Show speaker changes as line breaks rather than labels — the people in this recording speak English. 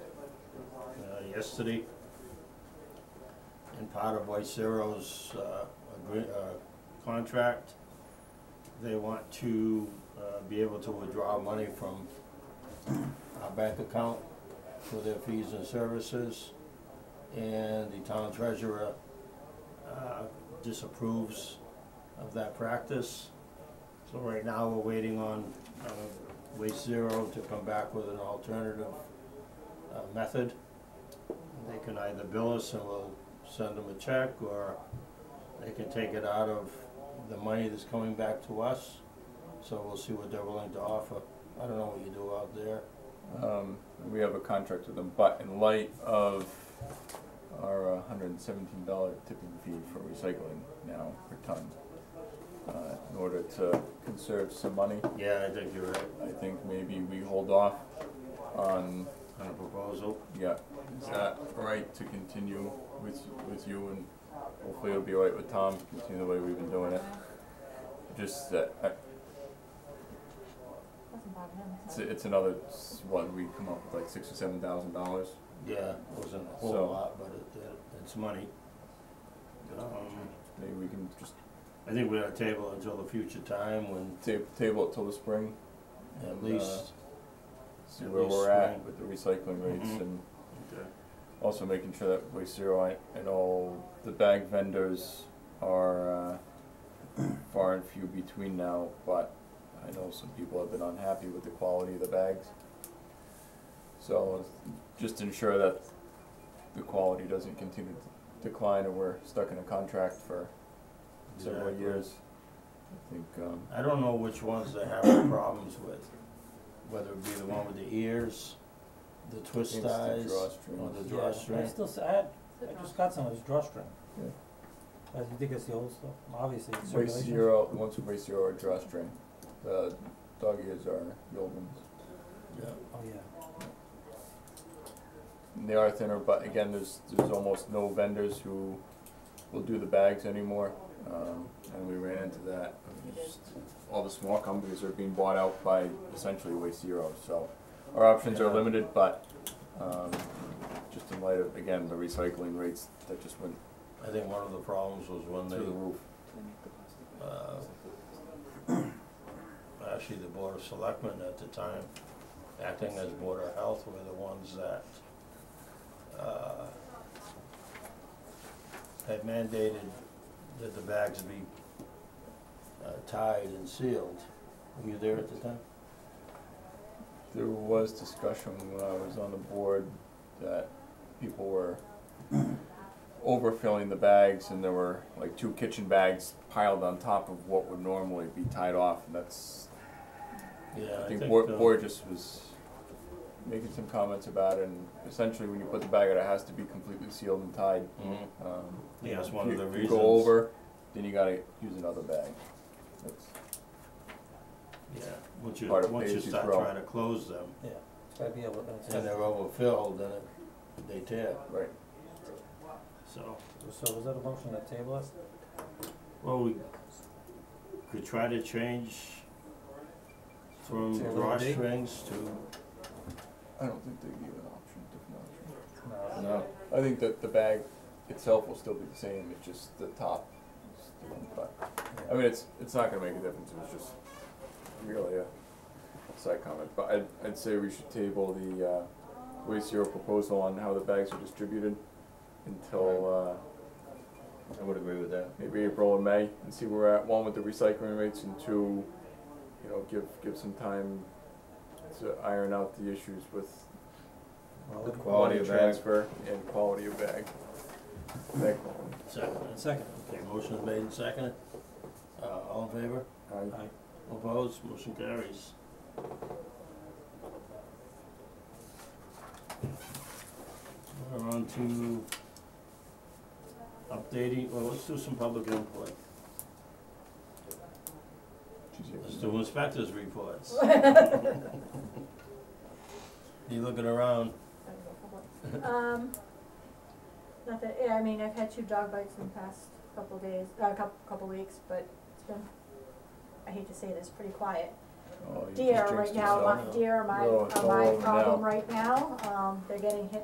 uh, yesterday. And part of Voicero's, uh, agree, uh, contract, they want to, uh, be able to withdraw money from our bank account for their fees and services. And the town treasurer, uh, disapproves of that practice. So right now, we're waiting on, uh, Waste Zero to come back with an alternative uh, method. They can either bill us and we'll send them a check, or they can take it out of the money that's coming back to us. So we'll see what they're willing to offer. I don't know what you do out there.
Um, we have a contract with them, but in light of our uh, hundred and seventeen dollar tipping fee for recycling now per ton, uh, in order to conserve some money,
Yeah, I think you're right,
I think maybe we hold off on,
on a proposal.
yeah, is that right to continue with, with you and hopefully it'll be all right with Tom, continue the way we've been doing it. Just that, uh, I,
Doesn't bother him.
it's, it's another, s- what, we come up with like six or seven thousand dollars,
Yeah, it wasn't a whole
So-
lot, but it, it- it's money. Um,
maybe we can just
I think we ought to table until the future time when
ta- table it till the spring.
at
and, uh,
least,
see
at
where
least
we're at
spring.
with the recycling rates
Mhm.
and
Okay.
also making sure that Waste Zero and- and all the bag vendors are uh, far and few between now, but I know some people have been unhappy with the quality of the bags. So just ensure that the quality doesn't continue to decline and we're stuck in a contract for several
Exactly.
years. I think, um,
I don't know which ones they have the problems with, whether it be the one with the ears, the
it's
twist
the
ties, or
drawstrings.
the
Yeah, I
drawstring.
still, s- I had, I just got some of his drawstring.
Yeah.
I think it's the old stuff, obviously, it's circulation.
Waste zero, the ones with waste zero are drawstring. The dog ears are the old ones.
Yeah.
Oh, yeah,
And They are thinner, but again, there's, there's almost no vendors who will do the bags anymore. Um, and we ran into that. Just All the small companies are being bought out by essentially waste zero, so our options are
Yeah.
limited, but, um, just in light of, again, the recycling rates that just went
I think one of the problems was when
through the
they,
roof.
uh, actually the Board of Selectmen at the time, acting as Board of Health, were the ones that, uh, had mandated that the bags be uh, tied and sealed. Were you there at the time?
There was discussion when I was on the board that people were overfilling the bags and there were like two kitchen bags piled on top of what would normally be tied off and that's,
Yeah,
I
I
think
think,
Bor-
uh,
Borges was making some comments about it and essentially when you put the bag out, it has to be completely sealed and tied.
mhm.
Um,
Yeah, that's one
if
of the
you- if
reasons.
you go over, then you gotta use another bag. That's,
Yeah, once you,
Part of
once you
Daisy's
start
Row.
trying to close them,
yeah, it's gotta be able, it's,
and they're overfilled, then it, they tear,
right,
so.
so was that a motion to table it?
Well, we could try to change from
To eliminate?
drawstrings to,
I don't think they gave an option, different option.
No,
No, I think that the bag itself will still be the same, it's just the top is different, but, I
yeah,
mean, it's, it's not gonna make a difference, it was just really a side comment, but I'd, I'd say we should table the, uh, waste zero proposal on how the bags are distributed until,
I would agree with that.
uh, maybe April and May, and see where we're at, one with the recycling rates, and two, you know, give, give some time to iron out the issues with
well,
The
let-
Quality
money
of bag.
transfer and quality of bag. Bag quality.
second,
second,
okay, motion made and seconded, uh, all in favor,
Aye.
aye,
opposed, motion carries. We're on to updating, well, let's do some public input, let's do inspectors reports. You looking around,
I don't know, public. Um, not that, yeah, I mean, I've had two dog bites in the past couple days, uh, couple, couple weeks, but it's been, I hate to say this, pretty quiet.
Oh, you just
Deer
jinxed
right now, my,
yourself.
deer are my,
No, it's
are
all
my
over now.
problem right now, um, they're getting hit